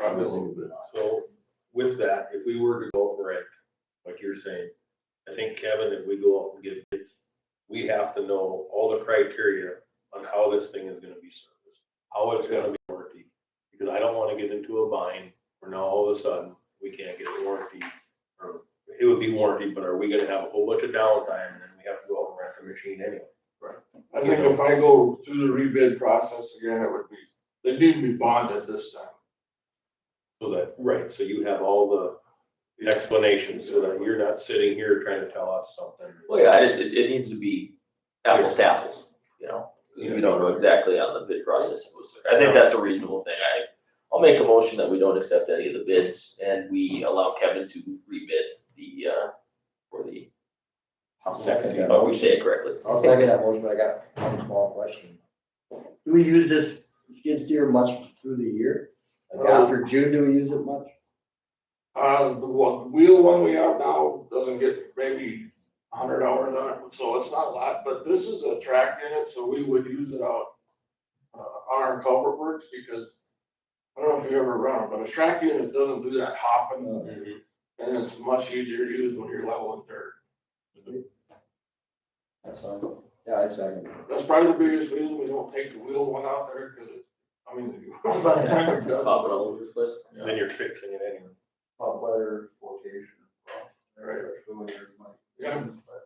up a little bit. So with that, if we were to go break, like you're saying, I think Kevin, if we go out and get bids, we have to know all the criteria on how this thing is gonna be serviced, how it's gonna be warranty. Because I don't wanna get into a bind where now all of a sudden, we can't get a warranty. Or it would be warranty, but are we gonna have a whole bunch of downtime and then we have to go out and rent the machine anyway? I think if I go through the rebid process again, it would be, they need to be bonded this time. So that, right, so you have all the explanations so that you're not sitting here trying to tell us something. Well, yeah, I just, it, it needs to be apples to apples, you know, 'cause we don't know exactly on the bid process. it was- I think that's a reasonable thing. I, I'll make a motion that we don't accept any of the bids and we allow Kevin to rebid the, uh, for the, I'll second that. oh, we say it correctly. I'll second that motion, but I got one small question. Do we use this skid steer much through the year? Like Uh, after June, do we use it much? Uh, the one, wheel one we have now doesn't get maybe a hundred hours on it, so it's not a lot, but this is a track unit, so we would use it out. Uh, on our culvert works, because I don't know if you ever run, them, but a track unit doesn't do that hopping, and it's much easier to use when you're leveling dirt. That's fine. Yeah, I second. it. That's probably the biggest reason we don't take the wheel one out there, cause it, I mean, by the time you're done. Pop it all over the place. Then you're fixing it anyway. pop weather location. Right. Yeah. Yeah.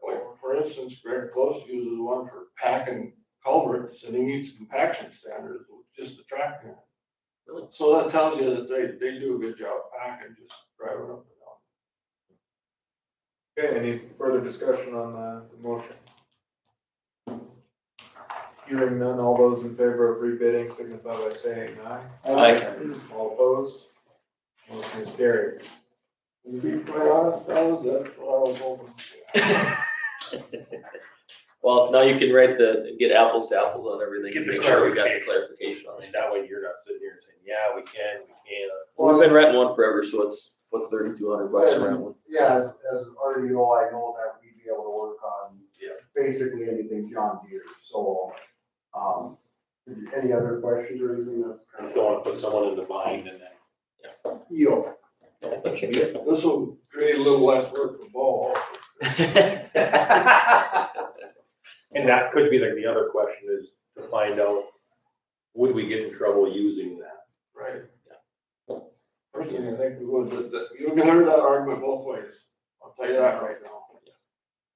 Like, for instance, Greg Close uses one for packing culverts and he meets compaction standards with just the tractor. Really? So that tells you that they, they do a good job packing, just driving up and down. Okay, any further discussion on the the motion? Hearing none, all those in favor of rebidding signify by saying aye. All opposed? Motion is carried. To be quite honest, fellas, that's what I was hoping. Well, now you can write the, get apples to apples on everything. Get the Make sure we got the clarification. clarification on I it. mean, that way you're not sitting here and saying, yeah, we can, we can't. We've been renting one forever, so it's, what's thirty-two hundred bucks to rent one? Yeah, as, as RDO, I know that we'd be able to work on Yeah. basically anything John Deere, so, um, any other questions or anything that's I kind just of. don't wanna put someone in the bind and then. Yo, This will create a little less work for Bo. also. And that could be like the other question is to find out, would we get in trouble using that? Right. Personally, I think we would, but that, you'll get heard that argument both ways. I'll tell you that right now.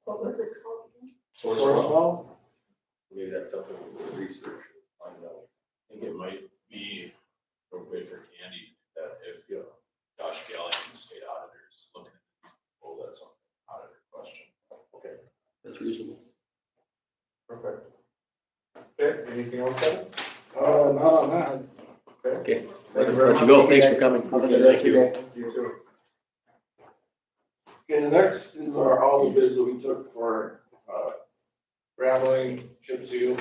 What was it called? Sourcewell? Maybe that's something we could research, and find out. I think it might be appropriate for Candy that if you know, Josh Galley and the state auditors looking at, oh, that's an auditor question. That's reasonable. perfect. Okay, anything else, Kevin? Uh, not on that. Okay. Thank you very Let you much. go. Thanks for coming. Have a good rest of your day. You too. Okay, the next is our, all the bids that we took for, uh, graveling, chip seal,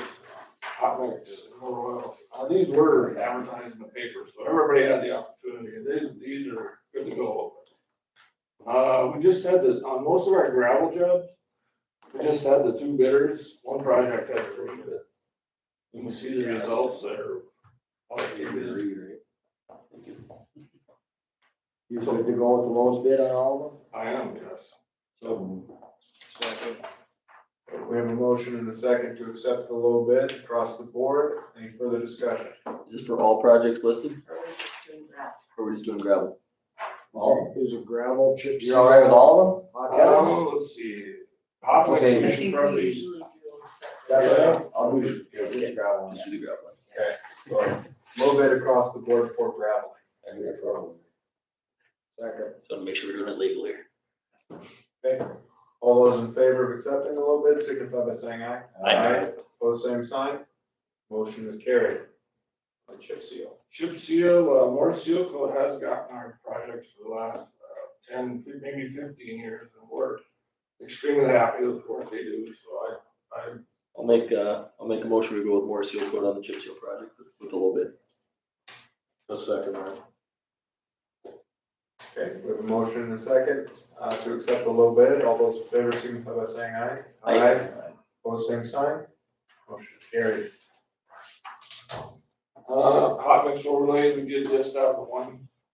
hot mix, and motor oil. Uh, these were advertised in the paper, so everybody had the opportunity, and these, these are good to go. Uh, we just had the, on most of our gravel jobs, we just had the two bidders, one project had three bids. You can see the results there. All the bidders. You said to go with the lowest bid on all of them? I am, yes. So. We have a motion and a second to accept the low bid across the board. Any further discussion? Is this for all projects listed, Or was it just doing that? or we're just doing gravel? All, is it gravel, chip? You all right with all of them? Hot Um, let's see. Hot mix, Okay. we I should think we probably- usually do separate. That's Yeah. right. I'll do, yeah, we can grab one. Just do the gravel. guys? Low bid across the board for gravel. I think that's wrong. Second. So to make sure we're doing it legally. Okay. All those in favor of accepting the low bid signify by saying aye. Aye. Pose same sign. Motion is carried. The Chip seal. Chip seal, uh, Morse Seal Coat has gotten our projects for the last uh, ten, maybe fifteen years, and we're extremely happy with what they do, so I, I, I'll make, uh, I'll make a motion to go with more seal coat on the chip seal project with a little bit. The second one. Okay, we have a motion and a second uh, to accept the low bid. All those in favor signify by saying aye. Aye. Pose same sign. Motion is carried. uh, hot mix overlays, we did just that the one